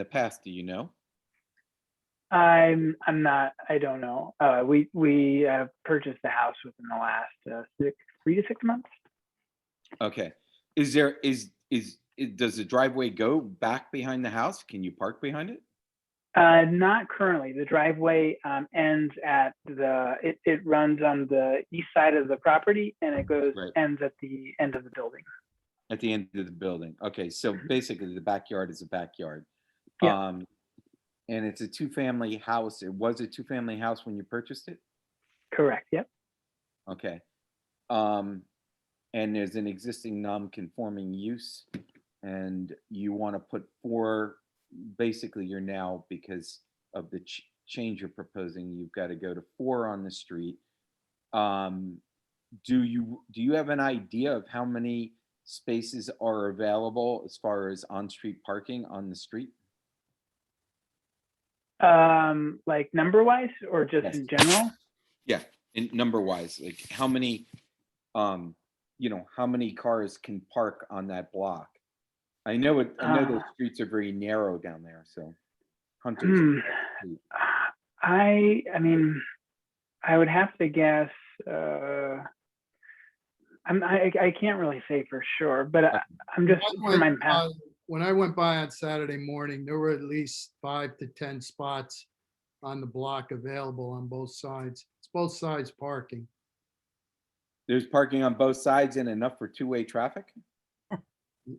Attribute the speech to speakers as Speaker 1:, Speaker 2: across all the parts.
Speaker 1: the past, do you know?
Speaker 2: I'm, I'm not, I don't know. Uh, we, we uh, purchased the house within the last uh, six, three to six months.
Speaker 1: Okay, is there, is, is, it- does the driveway go back behind the house? Can you park behind it?
Speaker 2: Uh, not currently. The driveway um, ends at the, it, it runs on the east side of the property and it goes,
Speaker 1: Right.
Speaker 2: ends at the end of the building.
Speaker 1: At the end of the building? Okay, so basically the backyard is a backyard.
Speaker 2: Yeah.
Speaker 1: Um, and it's a two-family house. It was a two-family house when you purchased it?
Speaker 2: Correct. Yep.
Speaker 1: Okay. Um, and there's an existing non-conforming use and you want to put four, basically you're now, because of the ch- change you're proposing, you've got to go to four on the street. Um, do you, do you have an idea of how many spaces are available as far as on-street parking on the street?
Speaker 2: Um, like number wise or
Speaker 1: Yes.
Speaker 2: just in general?
Speaker 1: Yeah, in number wise, like how many, um, you know, how many cars can park on that block? I know it, I know those
Speaker 2: Uh.
Speaker 1: streets are very narrow down there, so. Hunters,
Speaker 2: Hmm. I, I mean, I would have to guess, uh, I'm, I, I can't really say for sure, but I, I'm just,
Speaker 3: When I
Speaker 2: from my
Speaker 3: went
Speaker 2: past,
Speaker 3: by- Um, When I went by on Saturday morning, there were at least five to 10 spots on the block available on both sides. It's both sides parking.
Speaker 1: there's parking on both sides and enough for two-way traffic?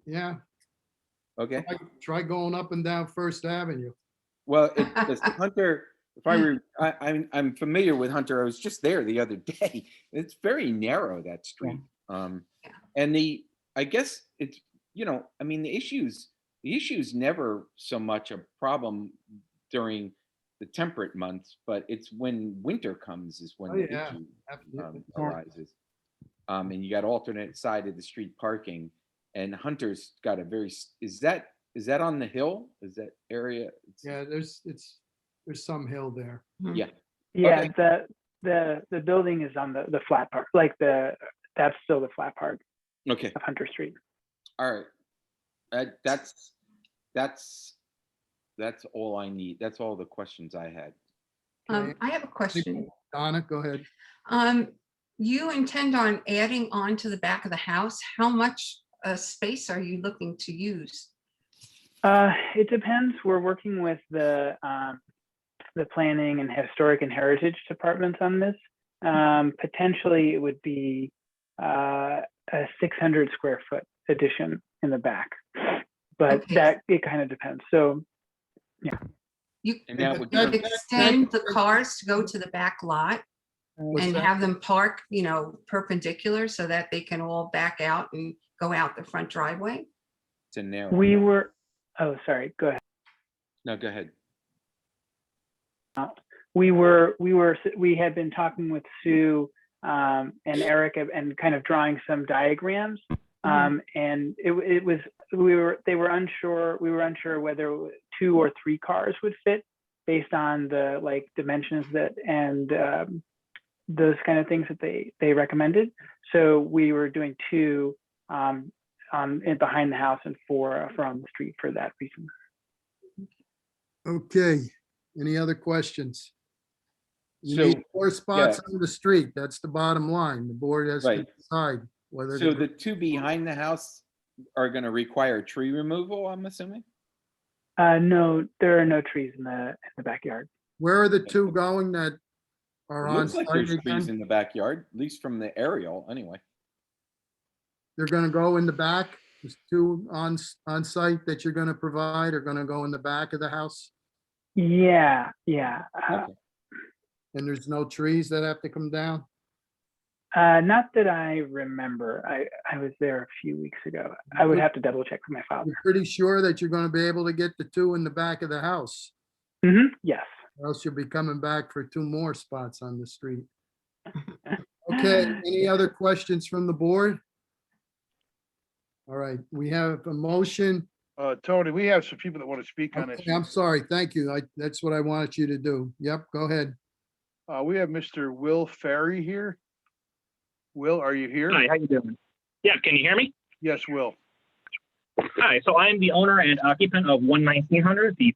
Speaker 3: Yeah,
Speaker 1: Okay,
Speaker 3: like, try going up and down First Avenue.
Speaker 1: well, it, does Hunter, if I were, I, I'm, I'm familiar with Hunter, I was just there the other day. It's very narrow, that street. Um, and the, I guess it's, you know, I mean, the issues, the issue's never so much a problem during the temperate months, but it's when winter comes is when
Speaker 3: Oh,
Speaker 1: the
Speaker 3: yeah.
Speaker 1: issue um,
Speaker 3: Absolutely.
Speaker 1: arises. Um, and you got alternate side of the street parking and Hunter's got a very, s- is that, is that on the hill? Is that area? It's-
Speaker 3: Yeah, there's, it's, there's some hill there.
Speaker 1: Mm-hmm.
Speaker 2: yeah,
Speaker 1: okay.
Speaker 2: the, the, the building is on the, the flat part, like the, that's still the flat part
Speaker 1: Okay,
Speaker 2: of Hunter Street.
Speaker 1: all right. That, that's, that's, that's all I need. That's all the questions I had.
Speaker 3: Okay.
Speaker 4: Um, I have a question.
Speaker 3: Donna, go ahead.
Speaker 4: Um, you intend on adding on to the back of the house? How much, uh, space are you looking to use?
Speaker 2: Uh, it depends. We're working with the, um, the planning and historic and heritage departments on this. Um, potentially it would be, uh, a six hundred square foot addition in the back. But
Speaker 4: Okay.
Speaker 2: that, it kind of depends. So,
Speaker 4: You
Speaker 1: And that would,
Speaker 3: That-
Speaker 4: could
Speaker 3: that-
Speaker 4: extend the cars to go to the back lot
Speaker 3: What's
Speaker 4: and
Speaker 3: that?
Speaker 4: have them park, you know, perpendicular so that they can all back out and go out the front driveway?
Speaker 1: it's a narrow.
Speaker 2: we were, oh, sorry, go ahead.
Speaker 1: No, go ahead.
Speaker 2: we were we were we had been talking with Sue um, and Eric and- and kind of drawing some diagrams. Um, and it, it was we were they were unsure we were unsure whether two or three cars would fit based on the like dimensions that and um, those kind of things that they they recommended. So we were doing two um, on and behind the house and four uh, from the street for that reason.
Speaker 3: Okay, any other questions? You
Speaker 1: So-
Speaker 3: need four spots on the street. That's the bottom line. The board has to
Speaker 1: Right.
Speaker 3: decide whether.
Speaker 1: So
Speaker 3: to-
Speaker 1: the two behind the house are gonna require tree removal, I'm assuming?
Speaker 2: Uh, no, there are no trees in the in the backyard.
Speaker 3: Where are the two going that are on?
Speaker 1: Looks like
Speaker 3: site
Speaker 1: there's trees
Speaker 3: again?
Speaker 1: in the backyard, at least from the aerial, anyway.
Speaker 3: They're gonna go in the back? There's two on, on site that you're gonna provide are gonna go in the back of the house?
Speaker 2: Yeah, yeah. Uh,
Speaker 1: Okay.
Speaker 3: And there's no trees that have to come down?
Speaker 2: Uh, not that I remember. I, I was there a few weeks ago. I would
Speaker 3: Mhm.
Speaker 2: have to double check with my file.
Speaker 3: You're pretty sure that you're gonna be able to get the two in the back of the house?
Speaker 2: hmm yes.
Speaker 3: Or else you'll be coming back for two more spots on the street. Okay, any other questions from the board? All right, we have a motion.
Speaker 5: Uh, Tony, we have some people that want to speak on this.
Speaker 3: Okay, I'm sorry, thank you. I, that's what I wanted you to do. Yep, go ahead.
Speaker 5: Uh, we have Mr. Will Ferry here. Will, are you here?
Speaker 6: Hi, how you doing? Yeah, can you hear me?
Speaker 5: Yes, Will.
Speaker 6: Hi, so I am the owner and occupant of 11900, the